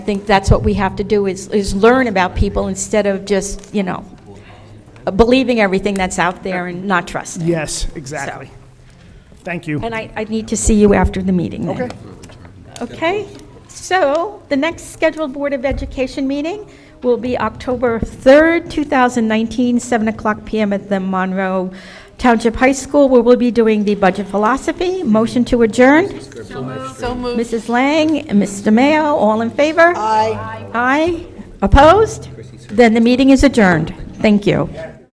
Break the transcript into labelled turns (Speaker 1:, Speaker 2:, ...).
Speaker 1: I think that's what we have to do, is, is learn about people instead of just, you know, believing everything that's out there and not trusting.
Speaker 2: Yes, exactly. Thank you.
Speaker 1: And I, I need to see you after the meeting then.
Speaker 2: Okay.
Speaker 1: Okay, so the next scheduled Board of Education meeting will be October 3rd, 2019, 7 o'clock PM at the Monroe Township High School, where we'll be doing the budget philosophy. Motion to adjourn?
Speaker 3: So moved.
Speaker 1: Mrs. Lang and Mr. Mayo, all in favor? Aye. Aye. Opposed? Then the meeting is adjourned. Thank you.